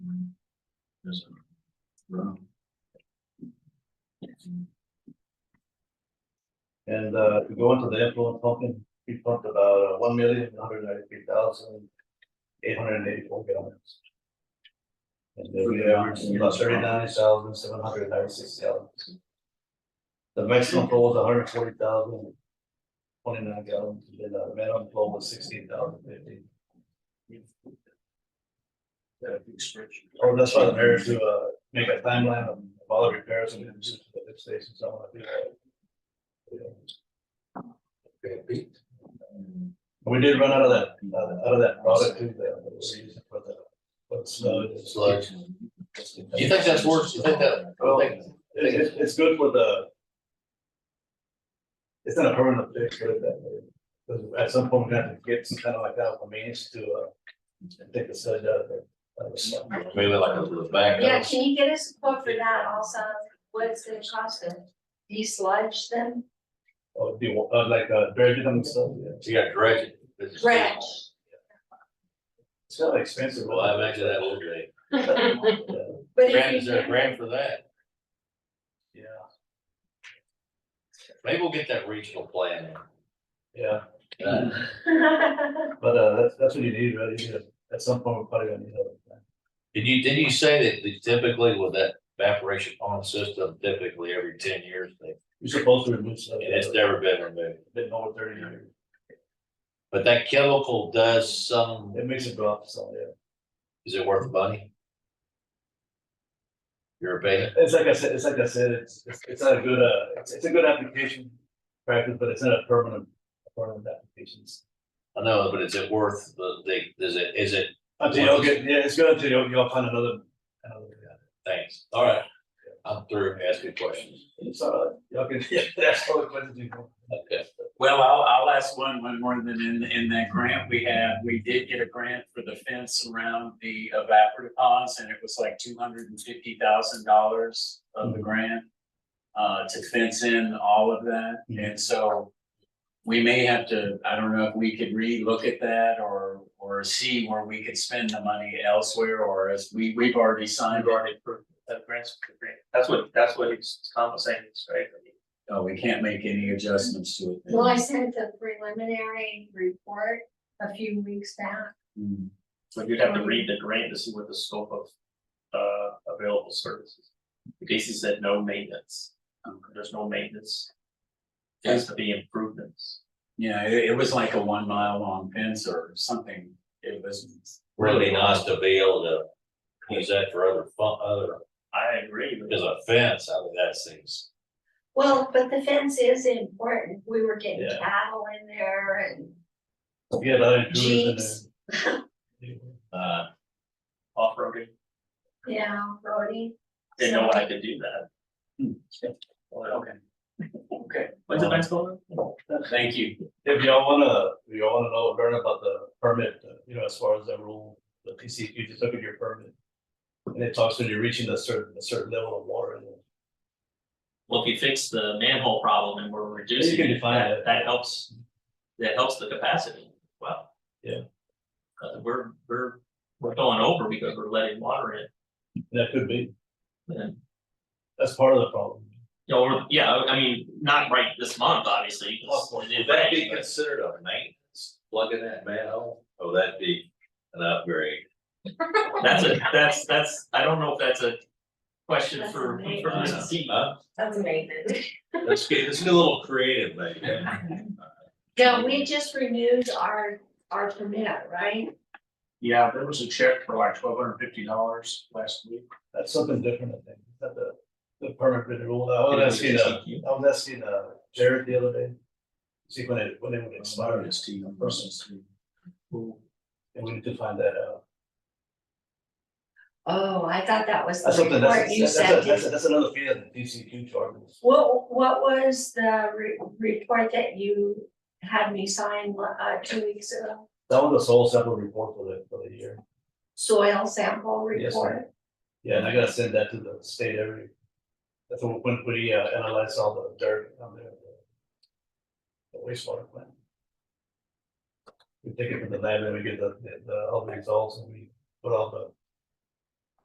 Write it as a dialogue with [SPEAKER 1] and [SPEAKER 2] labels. [SPEAKER 1] Yes. Wow.
[SPEAKER 2] And uh, to go into the influent pumping, we pumped about uh, one million, one hundred ninety-three thousand, eight hundred and eighty-four gallons. And then we averaged about thirty-nine thousand, seven hundred ninety-six gallons. The maximum flow was hundred forty thousand, twenty-nine gallons, and uh, the minimum flow was sixteen thousand fifty.
[SPEAKER 1] That big spreadsheet.
[SPEAKER 2] Or Oh, that's why I'm here to uh, make a timeline of all the repairs and additions to the lift stations, I wanna do that. Yeah.
[SPEAKER 1] Okay, beat.
[SPEAKER 2] We did run out of that, uh, out of that product too, that was used for the, but sludge.
[SPEAKER 3] Sludge. Do you think that's worse? Do you think that,
[SPEAKER 2] Well,
[SPEAKER 3] I
[SPEAKER 2] it,
[SPEAKER 3] think-
[SPEAKER 2] it- it's good for the. It's not a permanent fix, but that, because at some point we have to get some kind of like that, means to, uh, take the sludge out of there. Uh, so-
[SPEAKER 3] maybe like a little back.
[SPEAKER 4] Yeah, can you get us a quote for that also, what it's gonna cost them, desludge them,
[SPEAKER 2] Or do, you- uh, like, uh, dredge it and stuff, yeah,
[SPEAKER 3] You got dredged.
[SPEAKER 4] dredge?
[SPEAKER 2] it's kind of expensive.
[SPEAKER 3] Well, I imagine that will be,
[SPEAKER 2] Yeah.
[SPEAKER 4] But
[SPEAKER 3] grant,
[SPEAKER 4] if
[SPEAKER 3] is
[SPEAKER 4] you
[SPEAKER 3] there a
[SPEAKER 4] can,
[SPEAKER 3] grant for that? Maybe we'll get that regional plan.
[SPEAKER 2] Yeah,
[SPEAKER 3] in. Uh,
[SPEAKER 2] but, uh, that's, that's what you need, right, you need, a- at some point, we're probably gonna need a.
[SPEAKER 3] Did you, did you say that typically with that evaporation pond system, typically every ten years, they-
[SPEAKER 2] You're supposed to remove stuff.
[SPEAKER 3] and it's never been removed?
[SPEAKER 2] Been over thirty years.
[SPEAKER 3] But that chemical does some,
[SPEAKER 2] It makes it drop, so, yeah.
[SPEAKER 3] is it worth the money? Your opinion?
[SPEAKER 2] It's like I said, it's like I said, it's, it's, it's not a good, uh, it's, it's a good application practice, but it's not a permanent, permanent applications.
[SPEAKER 3] I know, but is it worth the, the, is it, is it,
[SPEAKER 2] Until y'all get, yeah, it's good until y'all, y'all find another, another, yeah.
[SPEAKER 3] thanks, all right. I'm through asking questions.
[SPEAKER 2] It's, uh, y'all can, that's all the questions you want.
[SPEAKER 3] Okay.
[SPEAKER 5] Well, I'll, I'll ask one, one more than in, in that grant we had, we did get a grant for the fence around the evaporative ponds and it was like two hundred and fifty thousand dollars of the grant. Uh, to fence in all of that. And so we may have to, I don't know if we could relook at that or, or see where we could spend the money elsewhere or as we, we've already signed.
[SPEAKER 6] already approved that grants, for the grant. that's what, that's what he's compensating, us, right? I mean,
[SPEAKER 5] Oh, we can't make any adjustments to it. then.
[SPEAKER 4] well, I sent the preliminary report a few weeks back,
[SPEAKER 5] Mm.
[SPEAKER 6] So you'd have to read the grant to see what the scope of, uh, available services. Casey said no maintenance, um, there's no maintenance. Has to be improvements.
[SPEAKER 5] Yeah, it, it was like a one mile long fence or something. It was.
[SPEAKER 3] Really nice to be able to use that for other fun, other,
[SPEAKER 6] I agree with
[SPEAKER 3] as a fence, I mean, that seems.
[SPEAKER 4] well, but the fence is important, we were getting
[SPEAKER 2] Yeah.
[SPEAKER 4] cattle in there and
[SPEAKER 2] You get a lot of intruders
[SPEAKER 4] jeeps,
[SPEAKER 2] in
[SPEAKER 3] Uh,
[SPEAKER 6] off-roading,
[SPEAKER 4] yeah, roadie.
[SPEAKER 6] didn't know I could do that. Well,
[SPEAKER 5] Hmm. Okay. Okay,
[SPEAKER 6] When's the next one?
[SPEAKER 5] thank you.
[SPEAKER 2] there. If y'all wanna, if y'all wanna know, learn about the permit, uh, you know, as far as the rule, the PC, you just look at your permit. And it talks when you're reaching a certain, a certain level of water and
[SPEAKER 6] Well, if you fix the manhole problem and we're reducing.
[SPEAKER 2] You can define
[SPEAKER 6] that-
[SPEAKER 2] it.
[SPEAKER 6] That helps, that helps the capacity, wow.
[SPEAKER 2] Yeah.
[SPEAKER 6] Uh, we're, we're, we're going over because we're letting water in,
[SPEAKER 2] that could be,
[SPEAKER 6] and,
[SPEAKER 2] that's part of the problem.
[SPEAKER 6] you know, we're- yeah, I I mean, not right this month, obviously. 'cause
[SPEAKER 2] Well,
[SPEAKER 6] it did
[SPEAKER 3] Would that
[SPEAKER 6] rain,
[SPEAKER 3] be
[SPEAKER 6] but-
[SPEAKER 3] considered a maintenance, plugging that manhole? Oh, that'd be an upgrade.
[SPEAKER 6] That's a, that's, that's, I don't know if that's a question
[SPEAKER 4] That's
[SPEAKER 6] for,
[SPEAKER 4] amazing.
[SPEAKER 6] for Mr. Seaman.
[SPEAKER 3] Huh?
[SPEAKER 4] That's amazing.
[SPEAKER 3] Let's get, let's get a little creative, maybe.
[SPEAKER 4] No, we just renewed our, our permit, right?
[SPEAKER 5] Yeah, there was a check for like twelve hundred fifty dollars last week.
[SPEAKER 2] That's something different, I think, Is that the, the permit been ruled, I
[SPEAKER 5] Oh,
[SPEAKER 2] was asking, uh, I was asking, uh, Jared the other day. See when it, when it would expire,
[SPEAKER 5] It's to you,
[SPEAKER 2] person's
[SPEAKER 5] person's.
[SPEAKER 2] Uh, and we need to find that out.
[SPEAKER 4] Oh, I thought that was
[SPEAKER 2] That's
[SPEAKER 4] the
[SPEAKER 2] something,
[SPEAKER 4] report
[SPEAKER 2] that's,
[SPEAKER 4] you
[SPEAKER 2] that's, that's,
[SPEAKER 4] sent
[SPEAKER 2] that's,
[SPEAKER 4] in.
[SPEAKER 2] that's another fee that the DCQ charges.
[SPEAKER 4] What, what was the re- report that you had me sign, uh, two weeks ago?
[SPEAKER 2] That was a sole sample report for the, for the year,
[SPEAKER 4] Soil sample
[SPEAKER 2] Yes, ma'am.
[SPEAKER 4] report?
[SPEAKER 2] yeah, and I gotta send that to the state every. That's when, when we uh, analyze all the dirt on there. the- The wastewater plant. We take it from the lab and we get the, the, the- all the results and we put all the